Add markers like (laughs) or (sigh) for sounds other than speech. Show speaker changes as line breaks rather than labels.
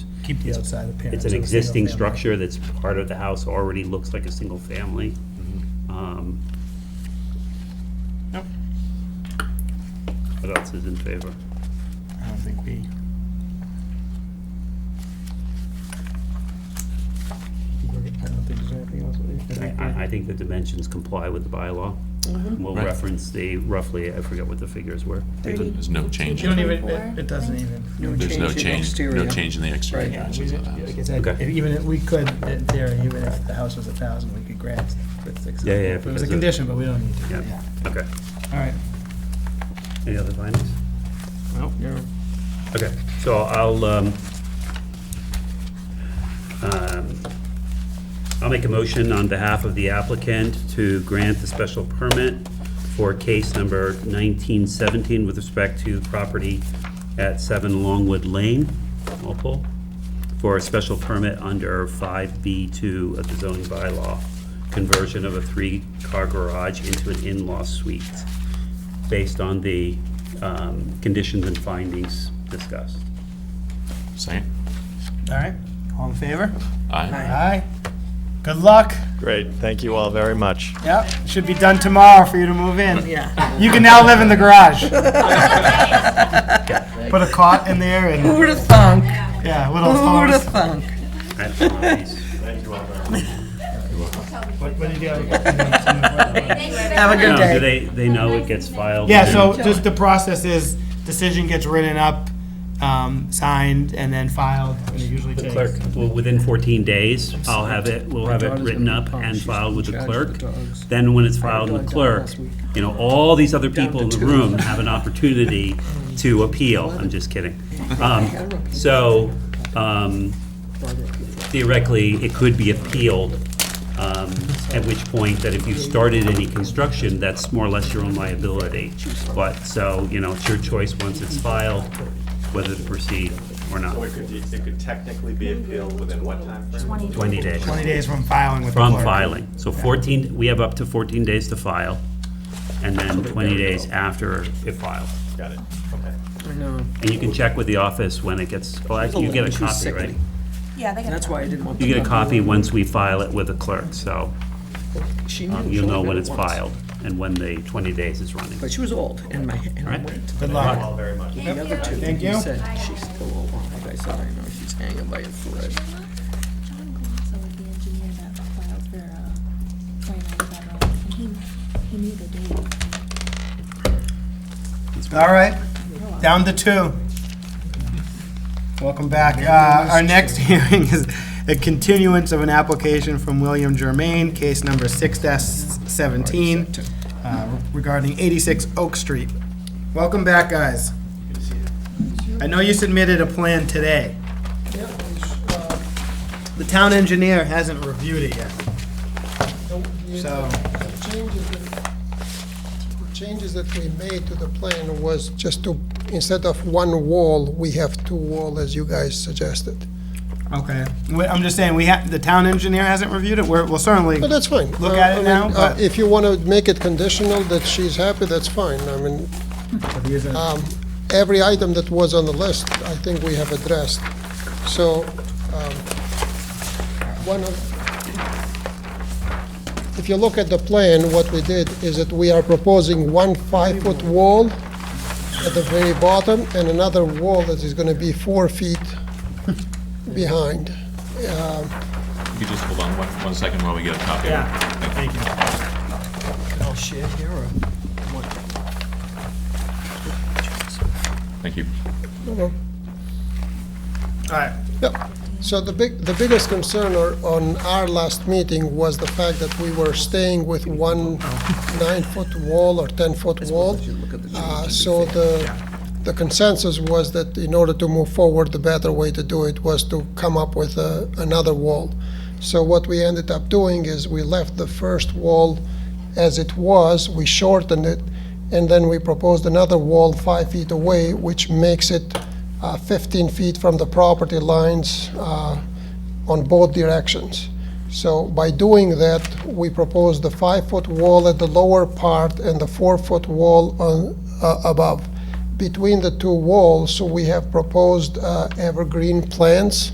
keep the outside appearance.
It's
of
an
a single
existing
family.
structure that's part of the house, already looks like a single family. Um,
Nope.
What else is in favor?
I don't think we. I don't think there's anything else. that we-
I, I- I think the dimensions comply with the bylaw. We'll
Right.
reference the roughly, I forget what the figures were.
Thirty.
There's no change.
You don't even, it-
Twenty-four,
it doesn't even.
There's no change, no change in the exterior
Right, yeah, we
dimensions
did-
of the house.
like I said,
Okay.
if even if we could, in theory, even if the house was a thousand, we could grant the six hundred.
Yeah, yeah,
If it
because
was a
of-
condition, but we don't need to,
Yeah.
yeah.
Okay.
All right,
Any other findings?
well, you're,
Okay, so I'll, um, um, I'll make a motion on behalf of the applicant to grant the special permit for case number 1917 with respect to property at 7 Longwood Lane, Walpole, for a special permit under 5B2 of the zoning bylaw, conversion of a three-car garage into an in-law suite, based on the um, conditions and findings discussed.
Second?
all right, all in favor?
Aye.
Aye. Good luck,
Great, thank you all very much.
yep, should be done tomorrow for you to move in. Yeah. You can now live in the
(laughs)
garage. Put a cot in there and,
Who'da thunk?
yeah, little
Who'da
floors.
thunk?
I don't know, these-
What what did you have?
Have a (laughs) good
No,
day.
do they, they know it gets
(laughs)
filed?
Yeah,
and-
so just the process is, decision gets written up, um, signed, and then filed, and it usually
The
takes.
clerk, well, within 14 days, I'll have it, we'll have it written up and filed with the clerk. Then when it's filed with the clerk, you know, all these other people in the room have an opportunity to appeal. I'm just kidding. Um, So um, theoretically, it could be appealed, um, at which point that if you started any construction, that's more or less your own liability. But, so, you know, it's your choice once it's filed, whether to proceed or not.
It could, it could technically be appealed within what timeframe?
20 days.
Twenty days from filing with the
From
clerk.
filing. So 14, we have up to 14 days to file, and then 20 days after it files.
Got it, okay.
I know,
And you can check with the office when it gets, well, actually, you get a
She's
copy, right?
sickening.
Yeah, they got.
that's why I didn't want.
You
the
get a
double.
copy once we file it with the clerk, so
She
um,
knew. She
you'll
only
know
read
when
it
it's
once.
filed and when the 20 days is running.
But she was old and my, and I
Alright.
went.
Good
Thank you all
luck.
very much.
The other two,
Thank
you
you.
said she's still old. Like I said, I know she's hanging by a thread.
John Glanzo was the engineer that filed for, uh, twenty-nine Road, and he, he knew the date.
All right, down to two. Welcome back. Uh, Our next (laughs) hearing is a continuance of an application from William Germain, case number six seventeen, uh, regarding eighty-six Oak Street. Welcome back, guys. I know you submitted a plan today. The town engineer hasn't reviewed it yet. So,
changes that- changes that we made to the plan was just to, instead of one wall, we have two wall, as you guys suggested.
okay, We- I'm just saying, we have, the town engineer hasn't reviewed it, we're, we'll certainly.
But that's fine.
Look at it
Uh, I mean,
now,
uh,
but-
If you want to make it conditional that she's happy, that's fine. I mean,
But he isn't-
um, every item that was on the list, I think we have addressed. So, um, one of, if you look at the plan, what we did is that we are proposing one five-foot wall at the very bottom and another wall that is gonna be four feet behind.
You could just hold on one, one second while we get a copy. of it.
Yeah, thank you.
I'll share here or?
Thank you.
All right,
Yeah. So the big, the biggest concern or- on our last meeting was the fact that we were staying with one nine-foot wall or 10-foot wall. Uh, So the, the consensus was that in order to move forward, the better way to do it was to come up with a- another wall. So what we ended up doing is we left the first wall as it was, we shortened it, and then we proposed another wall five feet away, which makes it uh, 15 feet from the property lines uh, on both directions. So by doing that, we propose the five-foot wall at the lower part and the four-foot wall on, uh, above. Between the two walls, we have proposed uh, evergreen plants